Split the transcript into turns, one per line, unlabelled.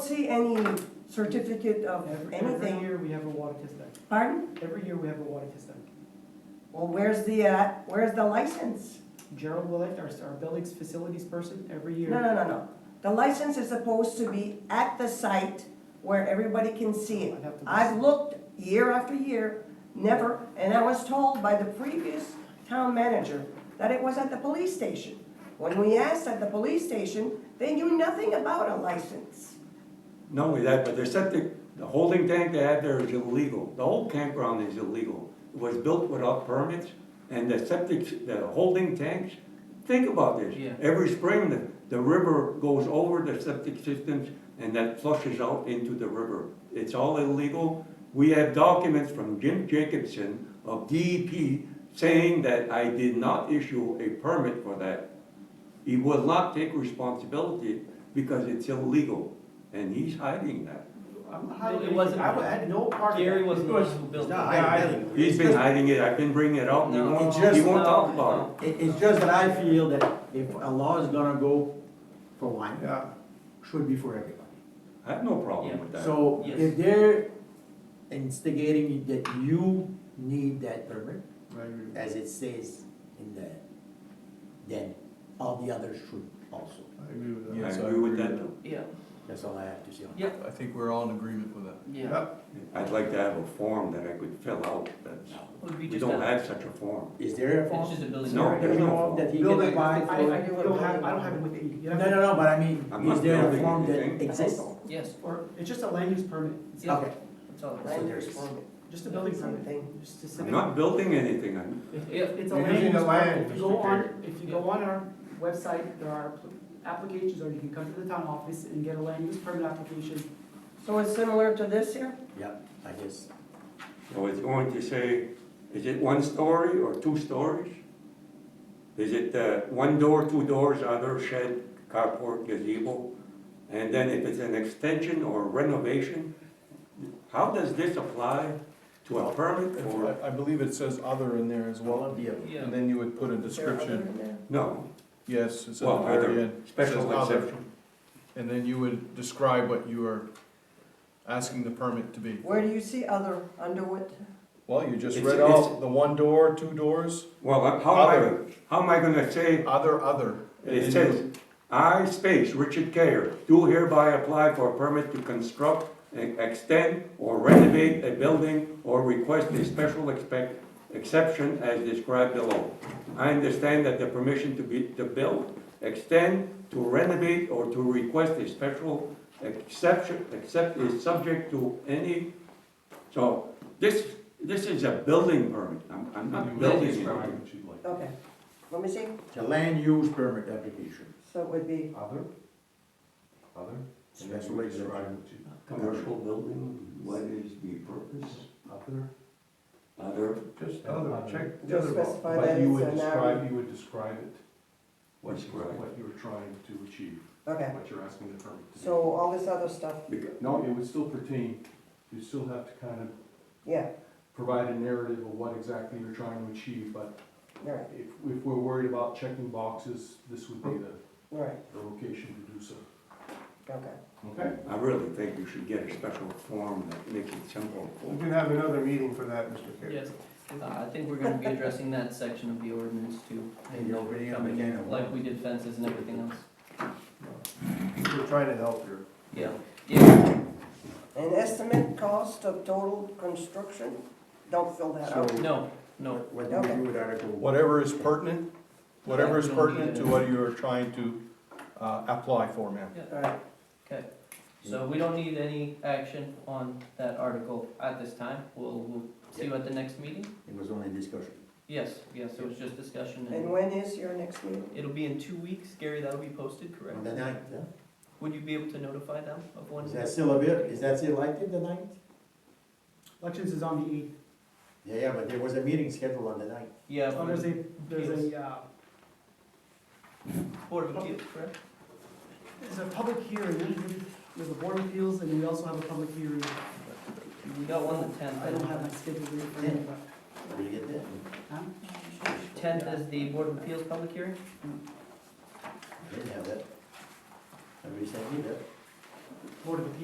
see any certificate of
Every, every
anything.
year we have a water test tank.
Pardon?
Every year we have a water test tank.
Well, where's the, uh, where's the license?
Gerald Willett, our, our buildings facilities person, every year.
No, no, no, no. The license is supposed to be at the site where everybody can see it.
I'd have to-
I've looked year after year, never, and I was told by the previous town manager that it was at the police station. When we asked at the police station, they knew nothing about a license.
Not only that, but their septic, the holding tank they had there is illegal. The whole campground is illegal. It was built without permits, and the septic, the holding tanks, think about this.
Yeah.
Every spring, the, the river goes over the septic systems, and that flushes out into the river. It's all illegal. We have documents from Jim Jacobson of DEP saying that I did not issue a permit for that. He will not take responsibility because it's illegal, and he's hiding that.
I'm not
No,
hiding
it
anything.
wasn't
I
mine.
wa- had no part of that.
Gary wasn't the
It
one
was-
who built
No,
it.
I didn't. build it.
He's been hiding it, I've been bringing it up, and he
No.
won't,
He just-
he won't talk about
It, it's just that I feel that if a law is gonna go for one,
Yeah,
should be for everybody.
it. I have no problem with that.
So
Yes.
if they're instigating that you need that permit,
right.
as it says in the, then all the others should also.
I agree with that.
I agree with that,
Yeah,
That's all I have to say on that.
yeah,
I think we're all in agreement with that.
yeah.
Yep,
I'd like to have a form that I could fill out, that's,
Would be
we
just
don't
a-
have such a form.
Is there a
It's
form?
just a building.
No,
There
there's
is
no
no
form.
form that he
Build
can
it.
apply
I, I
for?
don't have, I don't have it with me. You
No,
have-
no, no, but I mean,
I'm not
is there a
building
form that
anything.
exists?
Yes,
Or, it's just a land use permit, It's
Yeah.
Okay,
that's all.
Right.
Land use permit.
just a building
Same
permit.
thing.
Just a
I'm
civic-
not building anything, I'm
Yeah.
If It's a
You're
land
using
use
the
permit.
land,
If you
Mr.
go on,
Taylor.
if you go on our website, there are appl- applications, or you can come to the town office and get a land use permit application.
So it's similar to this here?
yeah, I guess.
So it's going to say, is it one story or two stories? Is it uh, one door, two doors, other shed, carport, gazebo? And then if it's an extension or renovation, how does this apply to a permit or,
I, I believe it says other in there as well,
the others.
Yeah.
and then you would put a description,
no,
yes, it's at the
well,
very
other
end. It says
special
other.
exception?
And then you would describe what you are asking the permit to be.
Where do you see other Underwood?
Well, you just
It's-
read
it's-
out the one door, two doors,
Well, how am I,
Other.
how am I gonna say,
other, other. And then
it
you-
says, I space Richard Care, do hereby apply for a permit to construct, e- extend, or renovate a building or request a special expect, exception as described below. I understand that the permission to be, to build, extend, to renovate, or to request a special exception, except is subject to any, so this, this is a building permit, I'm, I'm not building anything.
Okay, let me see.
It's a land use permit application.
So it would be,
Other? Other?
Special exemption.
Commercial building, what is the purpose?
Other?
Other,
Just other, check. the
Just
other box.
specify
But
that
you
it's
would
an
describe-
hour.
You would describe it, what you,
Describe.
what you're trying to achieve,
okay,
what you're asking the permit to do.
so all this other stuff,
because,
No, it would still pertain, you still have to kind of
yeah,
provide a narrative of what exactly you're trying to achieve, but
all right,
if, if we're worried about checking boxes, this would be the,
all right,
the location to do so.
okay.
Okay?
I really think we should get a special form that makes it simple.
We can have another meeting for that, Mr.
Yes, Uh, I think we're gonna be addressing that section of the ordinance too,
And you're opening up
Coming,
again a
like we did fences and everything else.
We're trying to help here.
Yeah, yeah,
An estimate cost of total construction, don't fill that out.
So,
no, no,
what do we do with Article one?
Whatever is pertinent, whatever is
Yeah, don't need
pertinent to
it.
what you are trying to, uh, apply for, ma'am.
All right,
okay. So we don't need any action on that article at this time, we'll, we'll see you at the next meeting.
It was only discussion.
Yes, yes, it was just discussion
and
and
when is your next meeting?
it'll be in two weeks, Gary, that'll be posted,
On
correct?
the ninth, huh?
Would you be able to notify them of when?
Is that still a bit, is that still active, the ninth?
Elections is on the eighth.
Yeah, yeah, but there was a meeting scheduled on the ninth.
Yeah,
Oh,
Board
there's a,
of-
there's a, uh,
Board of Appeals, correct?
there's a public hearing, there's a board of appeals, and we also have a public hearing.
We got one the tenth.
Oh, I don't have my schedule ready for you, but,
Where you get that?
huh?
Tenth is the Board of Appeals public hearing?
Didn't have that. Somebody sent me that.
Board of appeals